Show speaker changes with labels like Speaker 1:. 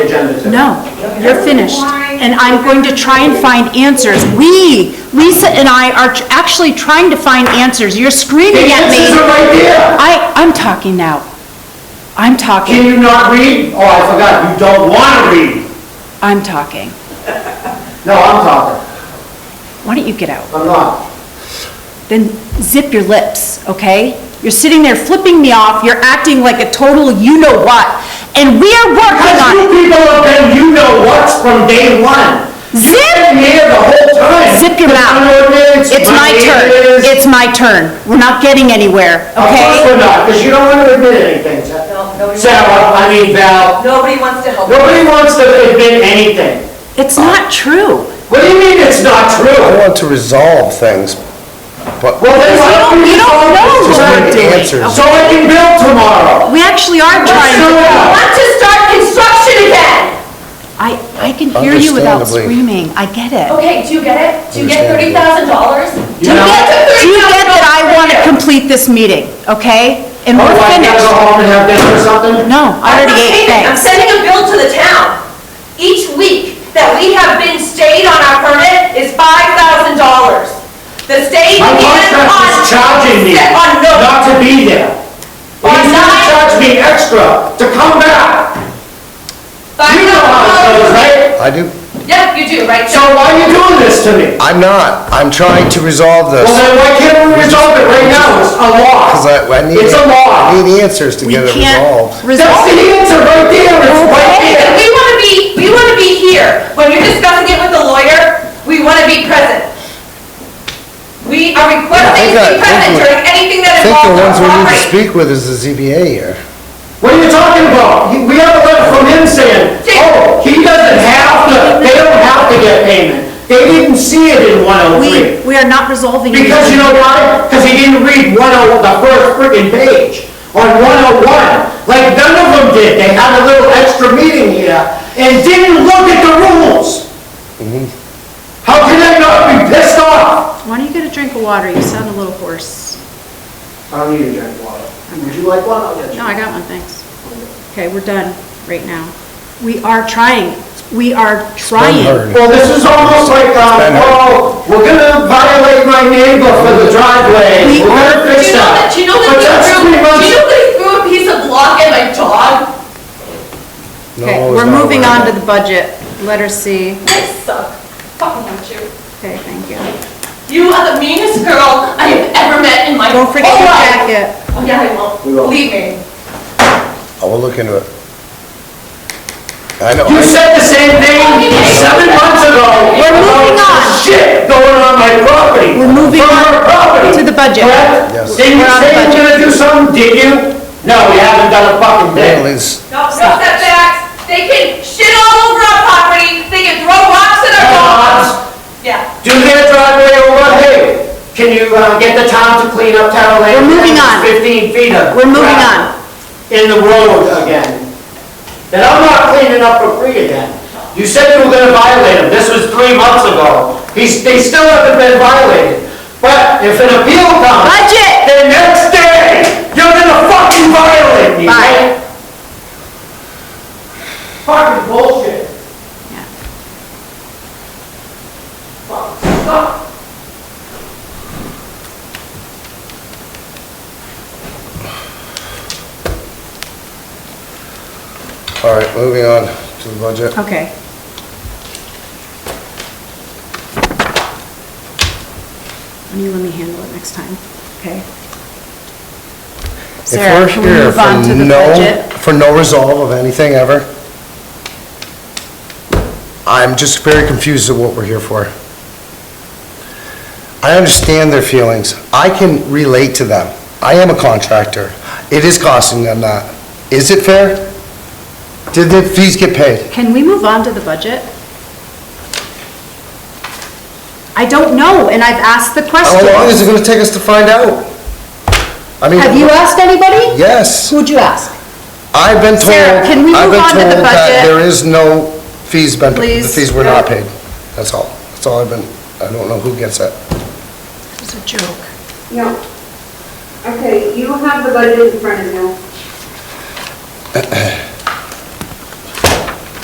Speaker 1: agenda today.
Speaker 2: No, you're finished. And I'm going to try and find answers. We, Lisa and I are tr- actually trying to find answers. You're
Speaker 1: The
Speaker 2: screaming at
Speaker 1: answers are
Speaker 2: me.
Speaker 1: right there.
Speaker 2: I, I'm talking now.
Speaker 1: Can
Speaker 2: I'm talking,
Speaker 1: you not read? Oh, I forgot, you don't want to read.
Speaker 2: I'm talking.
Speaker 1: No, I'm talking,
Speaker 2: Why don't you get out?
Speaker 1: I'm not.
Speaker 2: Then zip your lips, okay? You're sitting there flipping me off, you're acting like a total you-know-what, and we are working
Speaker 1: Because
Speaker 2: on
Speaker 1: you
Speaker 2: it.
Speaker 1: people have been, you know what's from day one. You've been here the whole time.
Speaker 2: Zip your
Speaker 1: The
Speaker 2: mouth.
Speaker 1: gun ordinance,
Speaker 2: It's my turn.
Speaker 1: neighbors.
Speaker 2: It's my turn. We're not getting anywhere,
Speaker 1: Of course
Speaker 2: okay?
Speaker 1: we're not, because you don't want to admit anything, Sa-
Speaker 3: No, nobody-
Speaker 1: Sarah, I mean Val.
Speaker 3: Nobody wants to help.
Speaker 1: Nobody wants to admit anything.
Speaker 2: It's not true.
Speaker 1: What do you mean it's not
Speaker 4: I
Speaker 1: true?
Speaker 4: want to resolve things, but
Speaker 1: Well, then why don't we
Speaker 2: You don't
Speaker 1: solve
Speaker 2: know
Speaker 1: this
Speaker 2: what
Speaker 4: we're
Speaker 1: tonight?
Speaker 4: doing. Answers.
Speaker 1: So I can build tomorrow.
Speaker 2: We actually are
Speaker 1: Let's do
Speaker 2: trying.
Speaker 1: it.
Speaker 3: Want to start construction again?
Speaker 2: I, I can hear you without
Speaker 4: Understandably.
Speaker 2: screaming. I get it.
Speaker 3: Okay, do you get it? Do you get thirty
Speaker 4: Understandable.
Speaker 3: thousand dollars?
Speaker 1: You know-
Speaker 2: Do you get that I want to complete this meeting, okay? And
Speaker 1: Oh, I
Speaker 2: we're
Speaker 1: gotta go
Speaker 2: finished.
Speaker 1: home and have dinner or something?
Speaker 2: No, I already ate,
Speaker 3: I'm
Speaker 2: thanks.
Speaker 3: sending a bill to the town. Each week that we have been stayed on our permit is five thousand dollars. The state
Speaker 1: My
Speaker 3: began
Speaker 1: contract
Speaker 3: on.
Speaker 1: is charging me
Speaker 3: set On no.
Speaker 1: not to be there.
Speaker 3: On
Speaker 1: He's gonna
Speaker 3: nine-
Speaker 1: charge me extra to come back.
Speaker 3: five
Speaker 1: You know how it
Speaker 3: thousand
Speaker 1: goes,
Speaker 3: dollars.
Speaker 1: right?
Speaker 4: I do,
Speaker 3: Yep, you do, right?
Speaker 1: So why are you doing this to me?
Speaker 4: I'm not, I'm trying to resolve
Speaker 1: Well,
Speaker 4: this.
Speaker 1: then why can't we resolve it right now? It's a law.
Speaker 4: 'cause I- I need-
Speaker 1: It's a law.
Speaker 4: I need answers to
Speaker 2: We
Speaker 4: get it
Speaker 2: can't
Speaker 4: resolved.
Speaker 1: That's the
Speaker 2: resolve.
Speaker 1: answer right there, it's right
Speaker 3: If
Speaker 1: there.
Speaker 3: we want to be, we want to be here. When you're discussing it with the lawyer, we want to be present. We are requesting to be
Speaker 4: Yeah, I got-
Speaker 3: present
Speaker 4: I
Speaker 3: during anything
Speaker 4: I
Speaker 3: that
Speaker 4: think the
Speaker 3: involves our
Speaker 4: ones we need to
Speaker 3: property.
Speaker 4: speak with is the ZBA here.
Speaker 1: What are you talking about? You- We have a letter from him saying, oh, he doesn't have to, they don't have to get payment. They didn't see it in
Speaker 2: We,
Speaker 1: 103.
Speaker 2: we are not resolving. it.
Speaker 1: Because you know why? Because he didn't read 10, the first friggin' page on 101. Like none of them did. They had a little extra meeting here and didn't look at the rules.
Speaker 4: Mm-hmm.
Speaker 1: How can I not be pissed off?
Speaker 2: Why don't you get a drink of water? You sound a little hoarse.
Speaker 1: I don't need to drink water. Would you like one? I'll get you.
Speaker 2: No, I got one, thanks. Okay, we're done right now. We are trying, we are trying.
Speaker 4: heard.
Speaker 1: Well, this is almost like, um,
Speaker 4: Spend it.
Speaker 1: oh, we're gonna violate my neighbor for the driveway,
Speaker 2: We-
Speaker 1: we're gonna
Speaker 3: Do
Speaker 1: fix
Speaker 3: you know that,
Speaker 1: that.
Speaker 3: do you know that
Speaker 1: But
Speaker 3: he
Speaker 1: that's
Speaker 3: threw,
Speaker 1: three
Speaker 3: do
Speaker 1: months.
Speaker 3: you know that he threw a piece of block at my dog?
Speaker 4: No,
Speaker 2: Okay,
Speaker 4: it's
Speaker 2: we're
Speaker 4: not
Speaker 2: moving
Speaker 4: allowed.
Speaker 2: on to the budget. Letter C.
Speaker 3: I suck. Fucking hate you.
Speaker 2: Okay, thank you.
Speaker 3: You are the meanest girl I have ever met in my whole
Speaker 2: Don't
Speaker 3: life.
Speaker 2: forget your jacket.
Speaker 3: Oh, yeah, I won't.
Speaker 1: We will.
Speaker 3: Believe me.
Speaker 4: I will Oh, look into it. I know,
Speaker 1: You said the same thing seven months ago.
Speaker 2: We're moving
Speaker 1: about
Speaker 2: on.
Speaker 1: Shit going on my property.
Speaker 2: We're moving
Speaker 1: From her
Speaker 2: on
Speaker 1: property.
Speaker 2: to the budget.
Speaker 1: Correct?
Speaker 4: Yes.
Speaker 1: Did you
Speaker 2: We're on
Speaker 1: say
Speaker 2: the
Speaker 1: you were
Speaker 2: budget.
Speaker 1: gonna do something, did you? No, we haven't done a fucking
Speaker 4: well,
Speaker 1: thing.
Speaker 4: it's,
Speaker 3: No, no setbacks. They can shit all over our property. They can throw rocks at our dogs.
Speaker 1: Dogs,
Speaker 3: Yeah.
Speaker 1: do their driveway over, hey, can you, uh, get the town to clean up town lane?
Speaker 2: We're moving on.
Speaker 1: Fifteen feet of.
Speaker 2: We're moving
Speaker 1: gravel.
Speaker 2: on.
Speaker 1: in the road again. And I'm not cleaning up for free again. You said you were gonna violate him, this was three months ago. He's, they still haven't been violated. But if an appeal comes,
Speaker 2: Budget!
Speaker 1: the next day, you're gonna fucking violate me, right? Fucking bullshit.
Speaker 2: Yeah.
Speaker 1: Fuck, suck.
Speaker 4: all right, moving on to the budget.
Speaker 2: Okay. Why don't you let me handle it next time, okay?
Speaker 4: If
Speaker 2: Sarah,
Speaker 4: we're
Speaker 2: can we
Speaker 4: here
Speaker 2: move on to
Speaker 4: for
Speaker 2: the
Speaker 4: no,
Speaker 2: budget?
Speaker 4: for no resolve of anything ever, I'm just very confused at what we're here for. I understand their feelings. I can relate to them. I am a contractor. It is costing them that. Is it fair? Did the fees get paid?
Speaker 2: Can we move on to the budget? I don't know, and I've asked the
Speaker 4: How
Speaker 2: question.
Speaker 4: long is it gonna take us to find out? I mean,
Speaker 2: Have you asked anybody?
Speaker 4: Yes.
Speaker 2: Who'd you ask?
Speaker 4: I've been told,
Speaker 2: Sarah, can we
Speaker 4: I've
Speaker 2: move
Speaker 4: been
Speaker 2: on to the
Speaker 4: told that
Speaker 2: budget?
Speaker 4: there is no fees been, the
Speaker 2: Please,
Speaker 4: fees were not
Speaker 2: no.
Speaker 4: paid. That's all. That's all I've been, I don't know who gets it.
Speaker 2: It's a joke.
Speaker 5: No. Okay, you have the budget in front of you.